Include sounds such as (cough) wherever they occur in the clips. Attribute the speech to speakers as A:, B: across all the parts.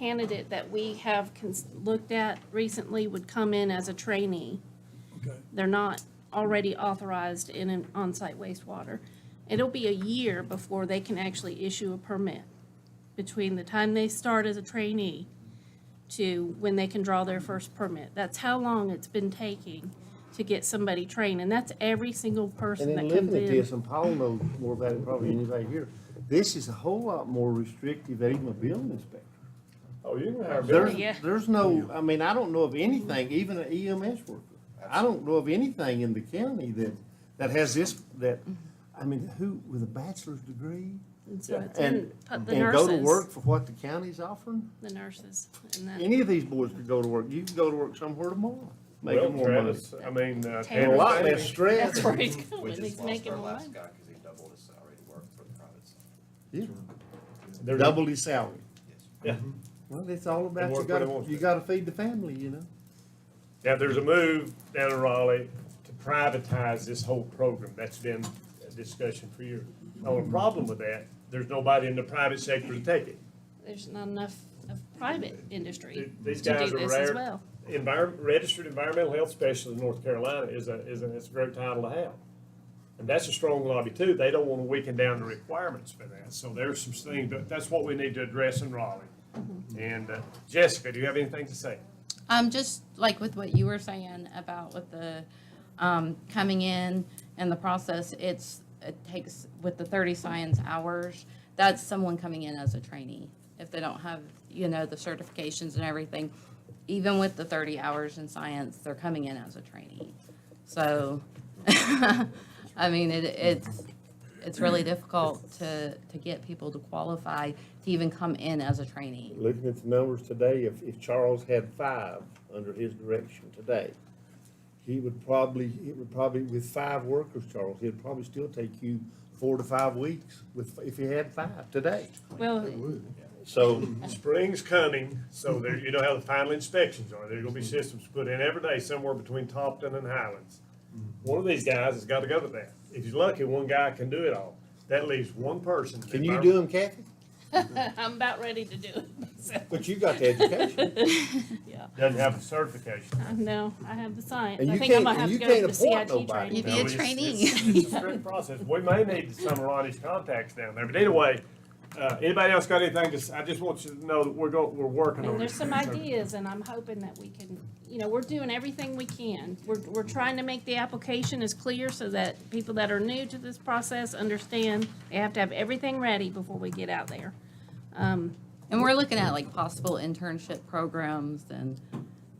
A: candidate that we have cons- looked at recently would come in as a trainee.
B: Okay,
A: They're not already authorized in an on-site wastewater. It'll be a year before they can actually issue a permit between the time they start as a trainee to when they can draw their first permit. That's how long it's been taking to get somebody trained, and that's every single person
C: And
A: that
C: then
A: comes in.
C: looking at this, and Paul knows more about it probably than anybody here, this is a whole lot more restrictive than even a building inspector.
D: Oh, you can have.
A: Yeah.
C: There's, there's no, I mean, I don't know of anything, even an EMS worker. I don't know of anything in the county that, that has this, that, I mean, who, with a bachelor's degree?
A: And so it's in
C: And,
A: pu-
C: and
A: the nurses.
C: go to work for what the county's offering?
A: The nurses and that.
C: Any of these boys could go to work. You can go to work somewhere tomorrow,
D: Well,
C: making more money.
D: Travis, I mean, uh.
C: And a
A: Well,
C: lot
D: Travis-
C: less stress.
A: That's where he's going,
E: We
A: he's
E: just lost
A: making
E: our
A: more money.
E: last guy because he doubled his salary to work for the private sector.
C: Yeah.
D: There's-
C: Double his salary.
E: Yes.
C: Mm-hmm. Well, it's all about,
D: And
C: you
D: work where they
C: gotta,
D: want
C: you
D: to.
C: gotta feed the family, you know?
D: Now, there's a move down in Raleigh to privatize this whole program. That's been a discussion for years. The only problem with that, there's nobody in the private sector to take it.
A: There's not enough of private industry to
D: These
A: do
D: guys are
A: this as
D: rare.
A: well.
D: Environment, registered environmental health specialist in North Carolina is a, is a, it's a great title to have. And that's a strong lobby too. They don't want to weaken down the requirements for that. So there's some things, that that's what we need to address in Raleigh. And uh, Jessica, do you have anything to say?
F: Um, just like with what you were saying about with the, um, coming in and the process, it's, it takes, with the thirty science hours, that's someone coming in as a trainee. If they don't have, you know, the certifications and everything, even with the thirty hours in science, they're coming in as a trainee. So, (laughs) I mean, it, it's, it's really difficult to, to get people to qualify to even come in as a trainee.
C: Looking at the numbers today, if, if Charles had five under his direction today, he would probably, it would probably, with five workers, Charles, it'd probably still take you four to five weeks with, if you had five today.
A: Well,
C: So,
D: Spring's coming, so there, you know how the final inspections are. There's gonna be systems put in every day somewhere between Topton and Highlands. One of these guys has gotta go to that. If he's lucky, one guy can do it all. That leaves one person.
C: can you do them, Kathy?
A: (laughs) I'm about ready to do it (laughs)
C: (laughs)
A: myself.
C: But you got the (laughs) education.
A: Yeah,
D: Doesn't have a certification.
A: I know, I have the science.
C: And
A: I
C: you
A: think I
C: can't-
A: might
C: and
A: have to
C: you
A: go to
C: can't
A: the
C: appoint
A: CIT
C: nobody.
F: You'd
A: training.
F: be a
D: No, it's-
F: trainee.
D: It's it's a strict process. We may need some of Ronnie's contacts down there, but either way, uh, anybody else got anything? Just, I just want you to know that we're go, we're working on it.
A: And there's some ideas, and I'm hoping that we can, you know, we're doing everything we can. We're, we're trying to make the application as clear so that people that are new to this process understand they have to have everything ready before we get out there. Um,
F: And we're looking at like possible internship programs and,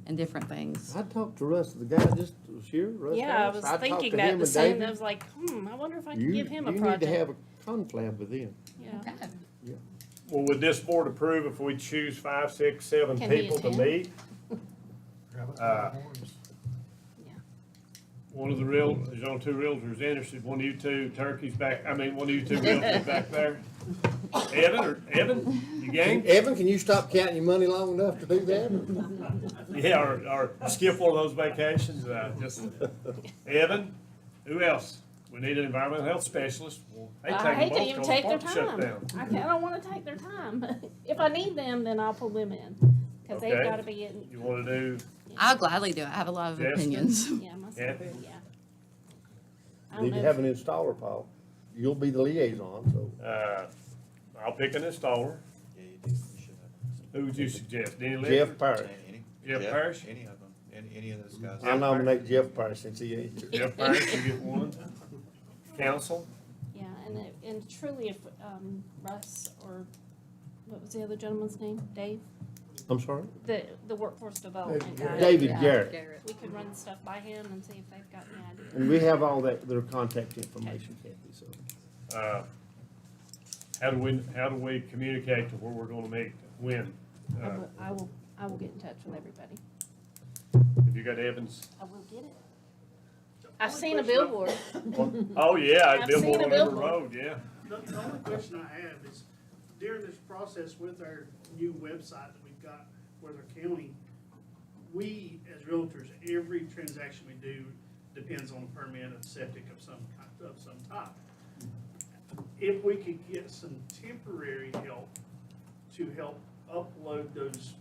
F: and different things.
C: I talked to Russ, the guy just was here, Russ
A: Yeah, I
C: Harris.
A: was
C: talked
A: thinking
C: to
A: that
C: him
A: the
C: and
A: same,
C: David.
A: I was like, hmm, I wonder if I
C: You-
A: can give him a
C: You need to have
A: project.
C: a confab with him.
A: Yeah.
D: Well, would this board approve if we choose five, six, seven
A: Can he
D: people to
A: attend?
D: meet? Uh,
A: Yeah.
D: One of the real, there's only two realtors interested, one of you two turkeys back, I mean, one of
A: (laughs)
D: you two realtors back there. Evan, or, Evan, you game?
C: Evan, can you stop counting your money long enough to do that?
D: Yeah, or, or skip one of those vacations, uh, just, Evan, who else? We need an environmental health specialist. Well, they
A: I
D: take
A: hate to
D: them
A: even
D: both till the
A: take their
D: park shut
A: time.
D: down.
A: I can't, I don't wanna take their time. (laughs) If I need them, then I'll pull them in, cause they've
D: Okay.
A: gotta be in,
D: You wanna do
F: I'll gladly do it. I have a lot of
D: Yes.
F: opinions.
A: yeah, myself,
D: Kathy?
A: yeah. I don't
C: Need
A: know
C: to
A: if-
C: have an installer, Paul. You'll be the liaison, so.
D: Uh, I'll pick an installer.
E: Yeah, you do, you should have.
D: Who would you suggest? Denny Liver?
C: Jeff Parrish.
E: Any-
D: Jeff Parrish?
E: Any of them, any, any of those guys.
C: I nominate Jeff Parrish since he ain't here.
D: Jeff Parrish, you get one. Council?
A: Yeah, and, it- and truly if, um, Russ or, what was the other gentleman's name? Dave?
C: I'm sorry?
A: The, the workforce development guy.
C: David Garrett.
F: Garrett.
A: We could run stuff by him and see if they've got any ideas.
C: And we have all that, their contact information, Kathy, so.
D: Uh, How do we, how do we communicate to where we're gonna meet? When?
A: I
D: Uh,
A: will, I will, I will get in touch with everybody.
D: Have you got Evans?
A: I will get it. I've seen a billboard.
D: Oh, yeah,
A: I've seen
D: Billboard
A: a
D: on River
A: billboard.
D: Road, yeah.
G: The, the only question I have is during this process with our new website that we've got with our county, we as realtors, every transaction we do depends on a permit of septic of some kind, of some type. If we could get some temporary help to help upload those